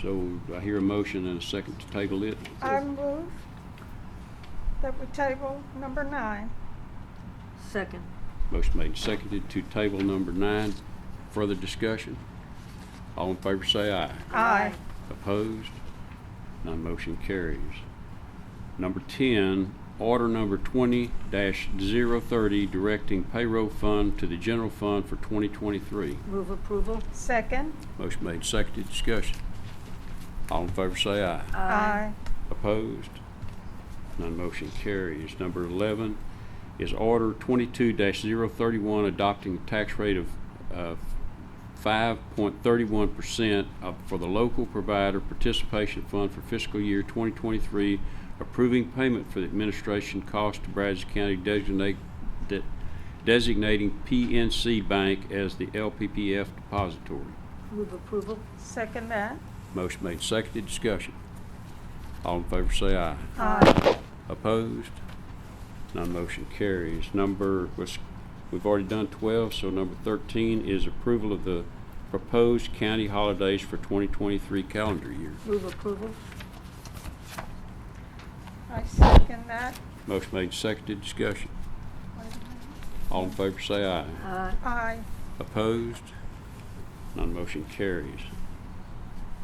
So do I hear a motion and a second to table it? I move that we table number nine. Second. Motion made and seconded to table number nine. Further discussion? All in favor say aye. Aye. Opposed? None motion carries. Number 10, order number 20-030, directing payroll fund to the general fund for 2023. Move approval? Second. Motion made, seconded, discussion. All in favor say aye. Opposed? None motion carries. Number 11 is Order 22-031, adopting a tax rate of uh, 5.31% of- for the Local Provider Participation Fund for fiscal year 2023, approving payment for the administration cost to Brazos County designate- de- designating PNC Bank as the LPPF depository. Move approval? Second that. Motion made, seconded, discussion. All in favor say aye. Aye. Opposed? None motion carries. Number, was- we've already done 12, so number 13 is approval of the proposed county holidays for 2023 calendar year. Move approval? I second that. Motion made, seconded, discussion. All in favor say aye. Aye. Aye. Opposed? None motion carries.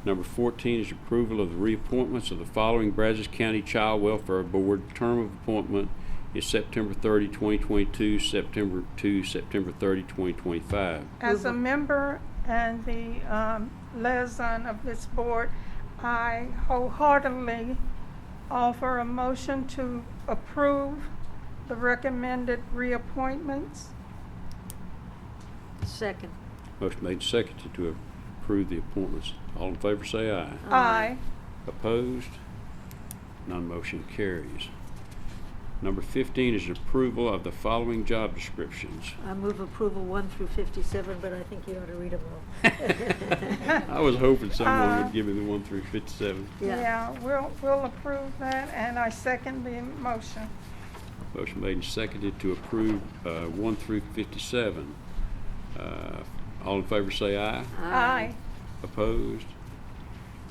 Number 14 is approval of the reappointments of the following Brazos County Child Welfare Board. Term of appointment is September 30, 2022, September 2, September 30, 2025. As a Move a- member and the um, liaison of this board, I wholeheartedly offer a motion to approve the recommended reappointments. Second. Motion made and seconded to approve the appointments. All in favor say aye. Aye. Opposed? None motion carries. Number 15 is approval of the following job descriptions. I move approval one through fifty-seven, but I think you ought to read them all. I was hoping someone Uh, would give me the one through fifty-seven. Yeah. Yeah, we'll, we'll approve that, and I second the motion. Motion made and seconded to approve, uh, one through fifty-seven. Uh, all in favor say aye. Aye. Opposed?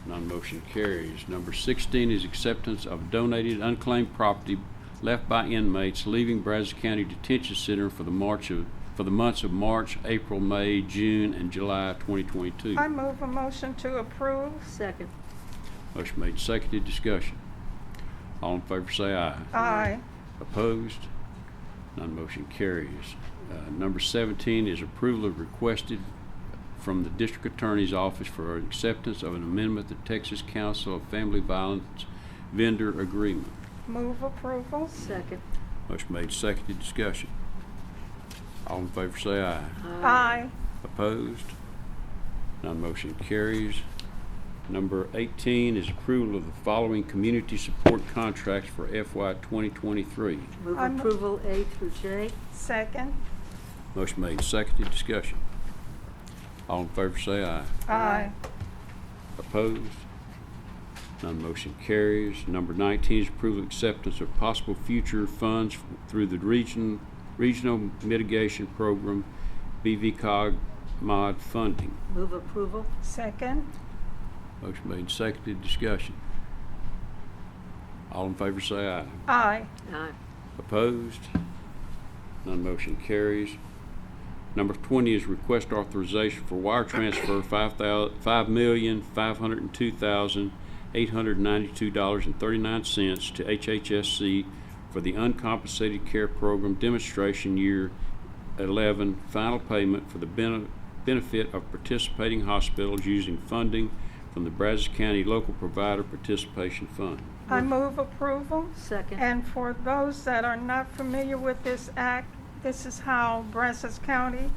Non-motion carries. Number sixteen is acceptance of donated unclaimed property left by inmates leaving Brazos County Detention Center for the March of, for the months of March, April, May, June, and July twenty twenty-two. I move a motion to approve. Second. Motion made and seconded, discussion. All in favor say aye. Aye. Opposed? None motion carries. Uh, Number 17 is approval of requested from the District Attorney's Office for acceptance of an amendment to Texas Council of Family Violence Vendor Agreement. Move approval. Second. Motion made, seconded, discussion. All in favor say aye. Aye. Opposed? None motion carries. Number 18 is approval of the following community support contracts for FY 2023. Move I'm- approval A through J. Second. Motion made, and seconded, discussion. All in favor say aye. Aye. Opposed? None motion carries. Number 19 is approval of acceptance of possible future funds through the region, Regional Mitigation Program, BVCOG mod funding. Move approval? Second. Motion made, and seconded, discussion. All in favor say aye. Aye. Aye. Opposed? None motion carries. Number 20 is request authorization for wire transfer five thou- $5,502,892.39 to HHSC for the uncompensated care program demonstration year 11 final payment for the bene- benefit of participating hospitals using funding from the Brazos County Local Provider Participation Fund. I move approval. Second. And for those that are not familiar with this act, this is how Brazos County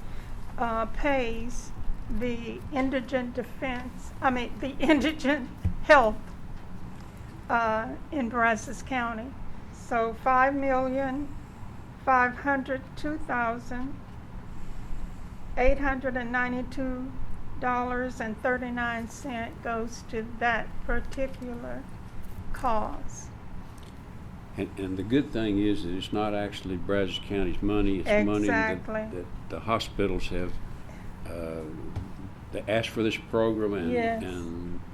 uh, pays the indigent defense, I mean, the indigent health uh, in Brazos County. So five million, five hundred two thousand, eight hundred and ninety-two dollars and thirty-nine cent goes to that particular cause. And, and the good thing is that it's not actually Brazos County's money, it's money that, Exactly. that the hospitals have, uh, they asked for this program and, Yes. and